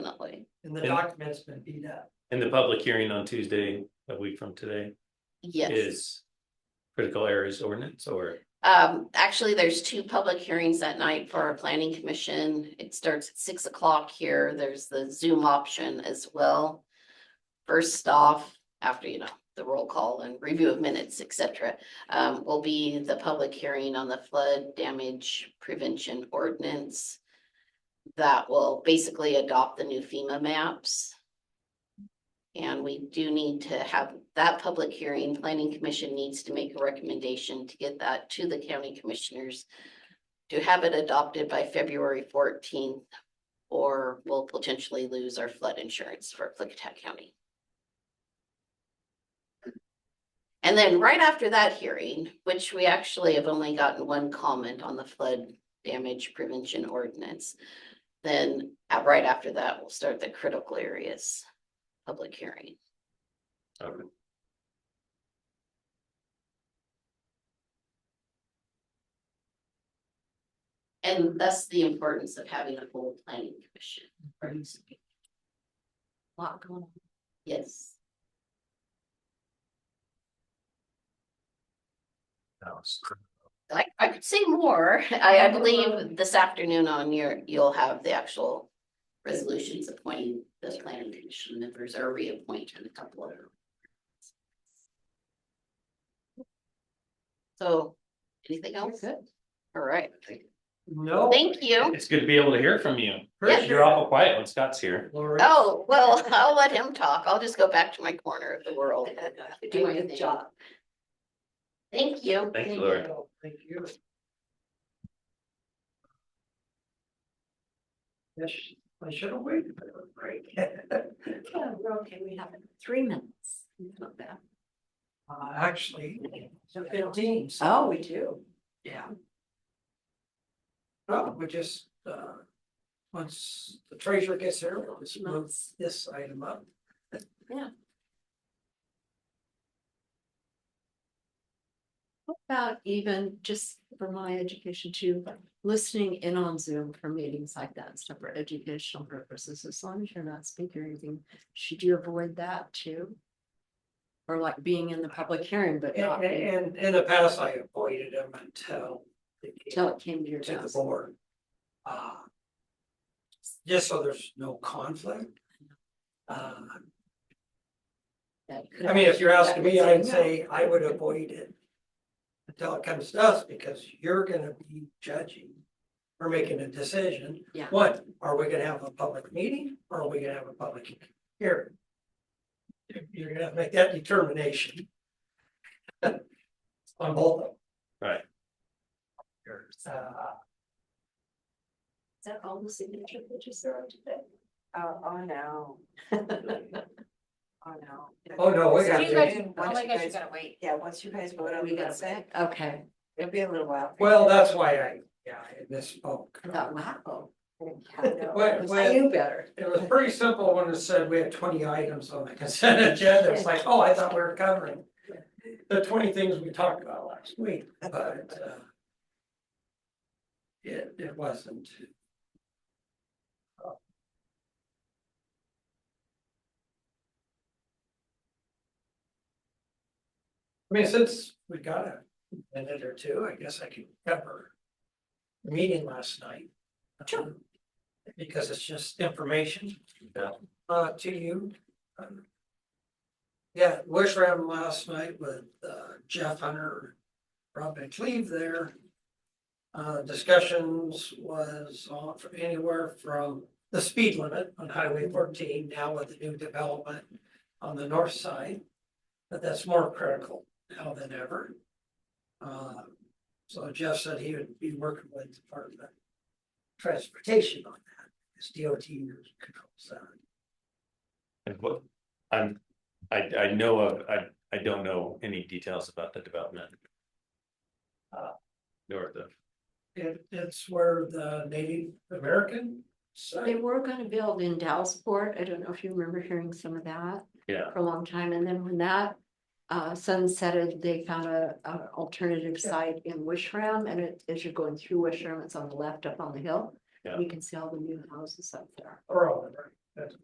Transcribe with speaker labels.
Speaker 1: and the
Speaker 2: And-
Speaker 1: document's been beat up.
Speaker 2: And the public hearing on Tuesday, a week from today,
Speaker 3: Yes,
Speaker 2: is critical areas ordinance or,
Speaker 3: um, actually, there's two public hearings that night for our planning commission. It starts at six o'clock here. There's the Zoom option as well. First off, after, you know, the roll call and review of minutes, et cetera, um, will be the public hearing on the flood damage prevention ordinance. That will basically adopt the new FEMA maps. And we do need to have that public hearing, planning commission needs to make a recommendation to get that to the county commissioners. To have it adopted by February fourteenth, or we'll potentially lose our flood insurance for Clickat County. And then right after that hearing, which we actually have only gotten one comment on the flood damage prevention ordinance. Then uh, right after that, we'll start the critical areas public hearing.
Speaker 2: um,
Speaker 3: And that's the importance of having a full planning commission. Lot going on. Yes, I, I could say more. I, I believe this afternoon on your, you'll have the actual resolutions appointing the planning commission members or reappointing a couple of them. So, anything
Speaker 4: Oh,
Speaker 3: else? Good. Oh. All right,
Speaker 1: No.
Speaker 3: thank you.
Speaker 2: it's good to be able to hear from you.
Speaker 1: Yes.
Speaker 2: You're awful quiet when Scott's here.
Speaker 1: Lori.
Speaker 3: Oh, well, I'll let him talk. I'll just go back to my corner of the world. Do my thing. Thank you.
Speaker 2: Thanks, Lori.
Speaker 1: No, Thank you. Yes, I should have waited for the break.
Speaker 4: Yeah, we're okay, we have three minutes. Not bad.
Speaker 1: Uh, actually, fifteen. so-
Speaker 4: Oh, we do.
Speaker 1: Yeah. Well, we just, uh, once the treasurer gets here, we'll just move
Speaker 4: Months.
Speaker 1: this item up.
Speaker 4: What About even just for my education too, listening in on Zoom for meetings like that and stuff for educational purposes, as long as you're not speaking or anything, should you avoid that too? Or like being in the public hearing, but
Speaker 1: And,
Speaker 4: not being-
Speaker 1: and in the past, I avoided them until. they came
Speaker 4: till it came to your
Speaker 1: To the
Speaker 4: house.
Speaker 1: board. Uh. Just so there's no conflict. Uh,
Speaker 4: That could
Speaker 1: I mean, if you're
Speaker 4: have-
Speaker 1: asking
Speaker 4: that
Speaker 1: me,
Speaker 4: would
Speaker 1: I'd
Speaker 4: no.
Speaker 1: say I would avoid it. Until it comes to us, because you're gonna be judging. We're making a decision.
Speaker 4: Yeah.
Speaker 1: What, are we gonna have a public meeting or are we gonna have a public hearing? You're- You're gonna make that determination. On both of them.
Speaker 2: Right.
Speaker 1: Uh,
Speaker 4: Is that all the signature pages there are today?
Speaker 5: Oh, oh, no. Oh, no.
Speaker 1: oh, no, we
Speaker 5: So
Speaker 1: got.
Speaker 5: you
Speaker 1: to-
Speaker 5: guys-
Speaker 6: Oh
Speaker 5: once
Speaker 6: my
Speaker 5: you
Speaker 6: gosh, you
Speaker 5: guys-
Speaker 6: gotta wait.
Speaker 5: Yeah, once you guys vote on
Speaker 4: We
Speaker 5: the
Speaker 4: got
Speaker 5: consent,
Speaker 4: Okay,
Speaker 5: it'll be a little while.
Speaker 1: Well, that's why I, yeah, I misspoke.
Speaker 4: I thought, wow,
Speaker 1: Well,
Speaker 4: I
Speaker 1: well,
Speaker 4: knew better.
Speaker 1: it was pretty simple when it said we had twenty items on the consent agenda. It's like, oh, I thought we were covering the twenty things we talked about last week, but, uh, it, it wasn't. I mean, since we got a minute or two, I guess I can cover the meeting last night. Um, Sure. Because it's just information.
Speaker 2: Yeah.
Speaker 1: Uh, to you. Um, Yeah, wish ran last night with uh, Jeff Hunter, Rob McLeave there. Uh, discussions was on from anywhere from the speed limit on Highway fourteen, now with the new development on the north side. But that's more critical now than ever. Uh, so Jeff said he would be working with Department of Transportation on that, because DOT controls that.
Speaker 2: And what, I'm, I, I know of, I, I don't know any details about the development. Uh, Nor the,
Speaker 1: It, it's where the Native American
Speaker 4: They
Speaker 1: site,
Speaker 4: were gonna build in Dallasport. I don't know if you remember hearing some of that.
Speaker 2: Yeah.
Speaker 4: For a long time, and then when that uh sunsetted, they found a a alternative
Speaker 1: Yeah.
Speaker 4: site in Wishram, and it, as you're going through Wishram, it's on the left up on the hill.
Speaker 2: Yeah.
Speaker 4: You can see all the new houses up there.
Speaker 1: or all of it, that's